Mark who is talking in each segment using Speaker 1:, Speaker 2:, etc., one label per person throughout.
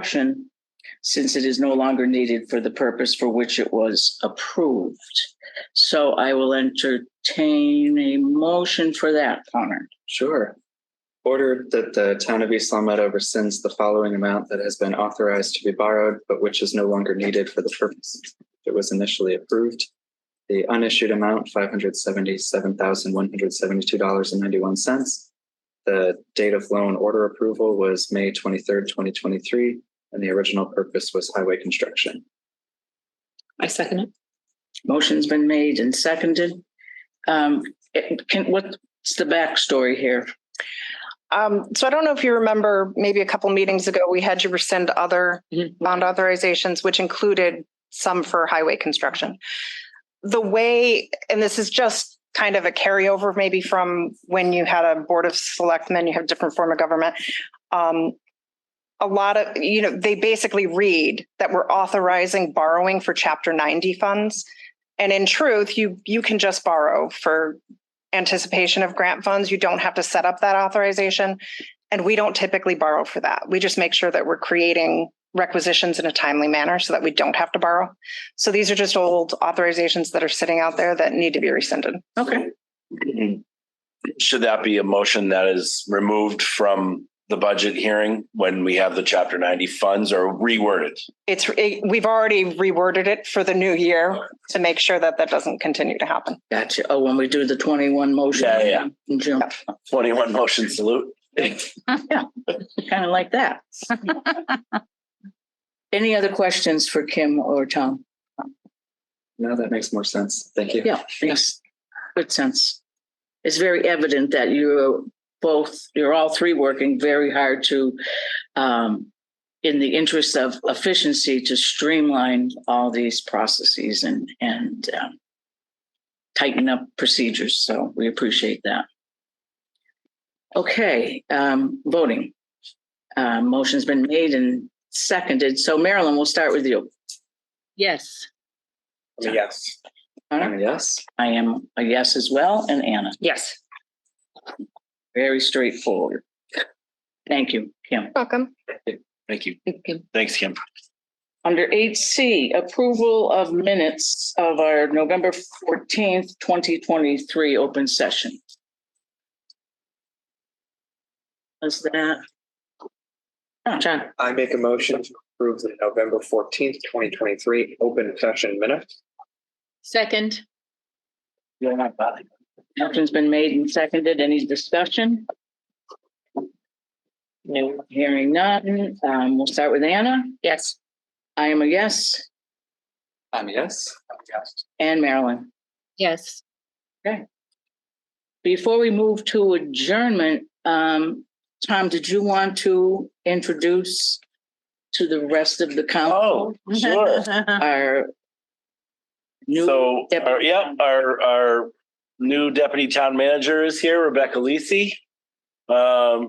Speaker 1: construction since it is no longer needed for the purpose for which it was approved. So I will entertain a motion for that, Connor.
Speaker 2: Sure. Order that the town of East Long Meadow rescinds the following amount that has been authorized to be borrowed, but which is no longer needed for the purpose it was initially approved. The unissued amount, five hundred seventy-seven thousand, one hundred seventy-two dollars and ninety-one cents. The date of loan order approval was May twenty-third, twenty twenty-three, and the original purpose was highway construction.
Speaker 3: I second it.
Speaker 1: Motion's been made and seconded. Um, it- can, what's the backstory here?
Speaker 4: Um, so I don't know if you remember, maybe a couple meetings ago, we had you rescind other
Speaker 3: Mhm.
Speaker 4: bond authorizations, which included some for highway construction. The way, and this is just kind of a carryover, maybe from when you had a board of selectmen, you have different form of government. Um, a lot of, you know, they basically read that we're authorizing borrowing for chapter ninety funds. And in truth, you, you can just borrow for anticipation of grant funds. You don't have to set up that authorization. And we don't typically borrow for that. We just make sure that we're creating requisitions in a timely manner so that we don't have to borrow. So these are just old authorizations that are sitting out there that need to be rescinded.
Speaker 1: Okay,
Speaker 5: Should that be a motion that is removed from the budget hearing when we have the chapter ninety funds or reworded?
Speaker 4: It's, it- we've already reworded it for the new year to make sure that that doesn't continue to happen.
Speaker 1: gotcha. Oh, when we do the twenty-one motion.
Speaker 5: Yeah, yeah, yeah.
Speaker 1: In June,
Speaker 5: Twenty-one motion salute.
Speaker 1: kind of like that. Any other questions for Kim or Tom?
Speaker 2: Now that makes more sense. Thank you.
Speaker 1: Yeah, makes good sense. It's very evident that you're both, you're all three working very hard to, um, in the interest of efficiency, to streamline all these processes and, and um, tighten up procedures. So we appreciate that. Okay, um, voting. Uh, motion's been made and seconded. So Marilyn, we'll start with you.
Speaker 3: Yes.
Speaker 2: Yes.
Speaker 1: Connor?
Speaker 2: yes.
Speaker 1: I am a yes as well, and Anna.
Speaker 3: Yes.
Speaker 1: Very straightforward. Thank you, Kim.
Speaker 4: Welcome.
Speaker 5: Thank you.
Speaker 3: Okay.
Speaker 5: Thanks, Kim.
Speaker 1: Under eight C, approval of minutes of our November fourteenth, twenty twenty-three open session. Is that? Oh, John,
Speaker 6: I make a motion to approve the November fourteenth, twenty twenty-three open session minutes.
Speaker 3: Second.
Speaker 1: you're not bothering. Motion's been made and seconded. Any discussion? No, hearing none. Um, we'll start with Anna.
Speaker 3: Yes.
Speaker 1: I am a yes,
Speaker 2: I'm a yes.
Speaker 1: and Marilyn.
Speaker 3: Yes.
Speaker 1: Before we move to adjournment, um, Tom, did you want to introduce to the rest of the council
Speaker 5: Oh, sure.
Speaker 1: our new,
Speaker 5: So, uh,
Speaker 1: deputy
Speaker 5: our, yep,
Speaker 1: town-
Speaker 5: our, our new deputy town manager is here, Rebecca Lisi. Um,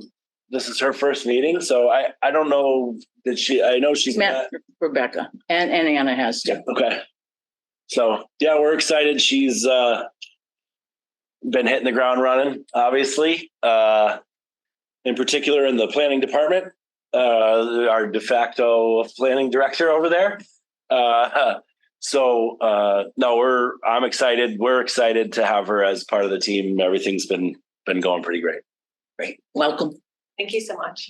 Speaker 5: this is her first meeting, so I, I don't know that she, I know she's
Speaker 1: Matt.
Speaker 5: met
Speaker 1: Rebecca, and, and Anna has
Speaker 5: Yeah.
Speaker 1: to.
Speaker 5: Okay. So yeah, we're excited. She's uh been hitting the ground running, obviously. Uh in particular in the planning department, uh our de facto planning director over there. Uh so uh no, we're I'm excited. We're excited to have her as part of the team. Everything's been been going pretty great.
Speaker 1: Welcome.
Speaker 4: Thank you so much.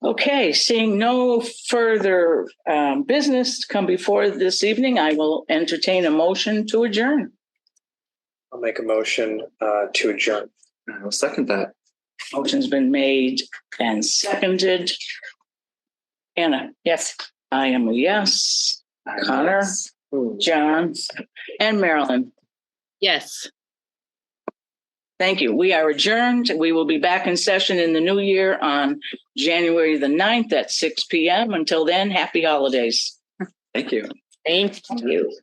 Speaker 1: Okay, seeing no further, um, business come before this evening, I will entertain a motion to adjourn.
Speaker 6: I'll make a motion uh to adjourn.
Speaker 2: I will second that.
Speaker 1: Motion's been made and seconded. Anna,
Speaker 3: Yes.
Speaker 1: I am a yes.
Speaker 2: I'm a
Speaker 1: Connor?
Speaker 2: yes.
Speaker 1: John, and Marilyn.
Speaker 3: Yes.
Speaker 1: Thank you. We are adjourned. We will be back in session in the new year on January the 9th at six PM. Until then, happy holidays.
Speaker 2: Thank you.
Speaker 3: Thank you.